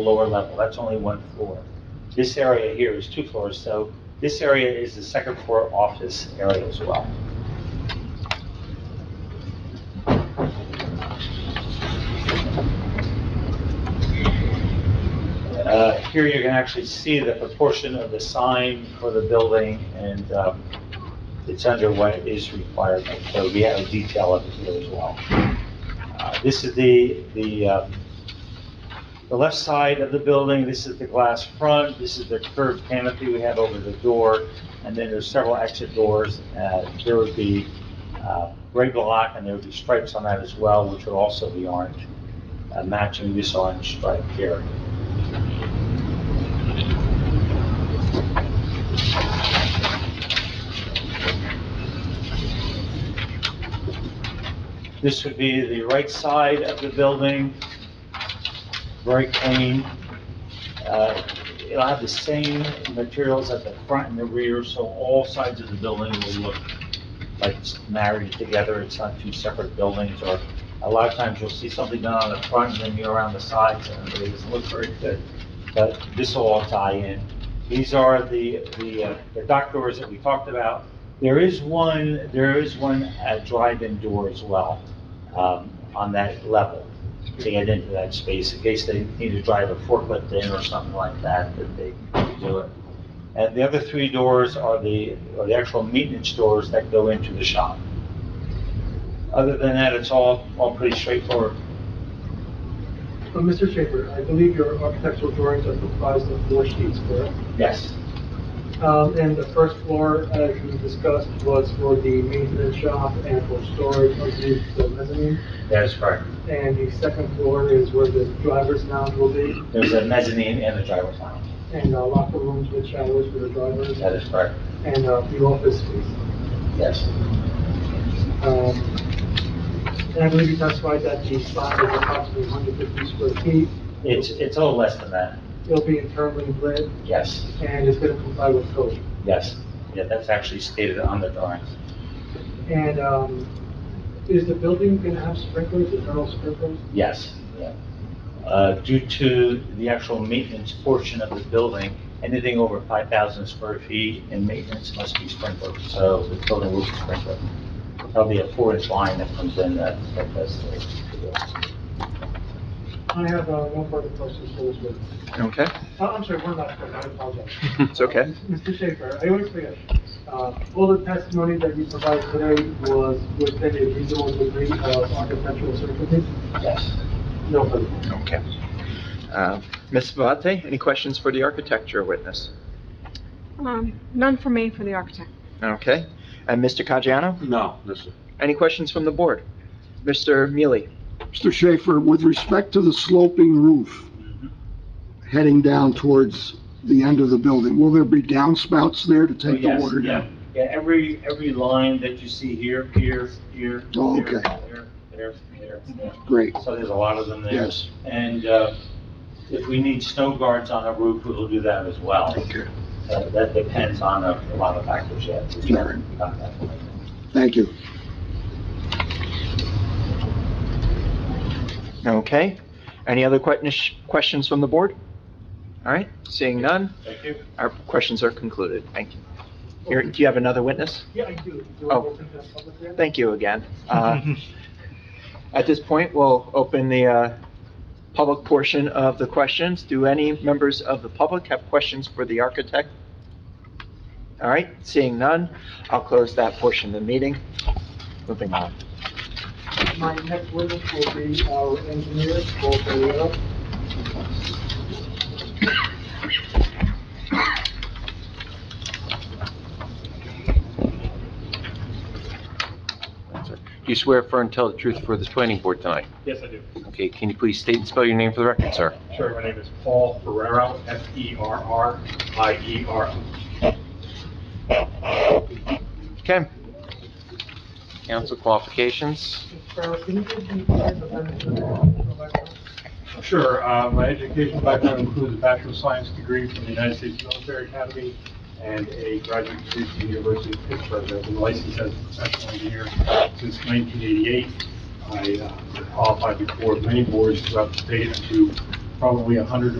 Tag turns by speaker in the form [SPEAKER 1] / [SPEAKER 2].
[SPEAKER 1] lower level, that's only one floor. This area here is two floors, so this area is the second floor office area as well. Uh, Here you can actually see the proportion of the sign for the building, and um, it's under what is required, so we have a detail of it here as well. Uh, This is the, the um, the left side of the building, this is the glass front, this is the curved canopy we have over the door, and then there's several exit doors. Uh, There would be uh, gray block, and there would be stripes on that as well, which would also be orange, uh, matching this orange stripe here. This would be the right side of the building very clean. Uh, It'll have the same materials at the front and the rear, so all sides of the building will look like it's married together. It's not two separate buildings, or a lot of times you'll see something done on the front and then you're around the sides, and it doesn't look very good. But this will all tie in. These are the, the, uh, the dock doors that we talked about. There is one, there is one uh, drive-in door as well, um, on that level to get into that space in case they need to drive a forklift in or something like that, that they can do it. And the other three doors are the, are the actual maintenance doors that go into the shop. Other than that, it's all, all pretty straightforward.
[SPEAKER 2] Uh, Mr. Schaefer, I believe your architectural drawings are comprised of four sheets, correct?
[SPEAKER 1] Yes,
[SPEAKER 2] Um, And the first floor, as we discussed, was for the maintenance shop and for storage underneath the mezzanine.
[SPEAKER 1] that is correct.
[SPEAKER 2] And the second floor is where the driver's lounge will be
[SPEAKER 1] There's a mezzanine and a driver's lounge.
[SPEAKER 2] and uh, locker rooms with showers for the drivers
[SPEAKER 1] That is correct.
[SPEAKER 2] and uh, the office space.
[SPEAKER 1] Yes,
[SPEAKER 2] Um, And I believe you testified that the size is approximately 150 square feet.
[SPEAKER 1] it's, it's a little less than that.
[SPEAKER 2] It'll be internally lit
[SPEAKER 1] Yes,
[SPEAKER 2] and it's going to comply with code.
[SPEAKER 1] yes. Yeah, that's actually stated on the drawings.
[SPEAKER 2] And um, is the building going to have sprinklers, internal sprinklers?
[SPEAKER 1] Yes, yeah. Uh, Due to the actual maintenance portion of the building, anything over 5,000 square feet in maintenance must be sprinkled, so the building will be sprinkled. There'll be a four-inch line that comes in that, that does the-
[SPEAKER 2] I have uh, one further question for this witness.
[SPEAKER 3] Okay,
[SPEAKER 2] Oh, I'm sorry, one last question, I apologize.
[SPEAKER 3] it's okay.
[SPEAKER 2] Uh, Mr. Schaefer, I always forget, uh, all the testimony that you provided today was within a reasonable degree of architectural certainty?
[SPEAKER 1] Yes.
[SPEAKER 2] No further.
[SPEAKER 3] Okay. Uh, Ms. Vate, any questions for the architecture witness?
[SPEAKER 4] Um, none for me, for the architect.
[SPEAKER 3] Okay. And Mr. Caggiano,
[SPEAKER 5] No, listen.
[SPEAKER 3] any questions from the board? Mr. Mealy?
[SPEAKER 6] Mr. Schaefer, with respect to the sloping roof heading down towards the end of the building, will there be downspouts there to take the
[SPEAKER 1] Oh, Yes,
[SPEAKER 6] water
[SPEAKER 1] yeah.
[SPEAKER 6] down?
[SPEAKER 1] Yeah, every, every line that you see here, here, here.
[SPEAKER 6] Oh,
[SPEAKER 1] here,
[SPEAKER 6] okay.
[SPEAKER 1] There, there, there, there.
[SPEAKER 6] Great,
[SPEAKER 1] So there's a lot of them there.
[SPEAKER 6] yes.
[SPEAKER 1] And uh, if we need snow guards on a roof, we'll do that as well.
[SPEAKER 6] Okay,
[SPEAKER 1] Uh, That depends on a a lot of factors, yeah. We haven't gotten that far.
[SPEAKER 6] thank you.
[SPEAKER 3] Okay. Any other que- questions from the board? All right, seeing none,
[SPEAKER 1] Thank you.
[SPEAKER 3] our questions are concluded. Thank you. Here, do you have another witness?
[SPEAKER 2] Yeah, I do. Do I
[SPEAKER 3] Oh.
[SPEAKER 2] open the public hearing?
[SPEAKER 3] Thank you again. Uh, At this point, we'll open the uh, public portion of the questions. Do any members of the public have questions for the architect? All right, seeing none, I'll close that portion of the meeting. Moving on.
[SPEAKER 2] My next witness will be our engineer, Paul Ferriero.
[SPEAKER 5] Do you swear firm and tell the truth for this planning board tonight?
[SPEAKER 7] Yes, I do.
[SPEAKER 5] Okay, can you please state and spell your name for the record, sir?
[SPEAKER 7] Sure, my name is Paul E Ferrero, F-E-R-R-I-E-R.
[SPEAKER 3] Okay,
[SPEAKER 5] Council qualifications?
[SPEAKER 2] Mr. Ferriero, can you give the plans of that?
[SPEAKER 7] Sure, uh, my education background includes a Bachelor of Science degree from the United States Military Academy and a graduate degree from the University of Pittsburgh. I've been licensed as a professional engineer since 1988. I uh, qualified before many boards throughout the state to probably 100 or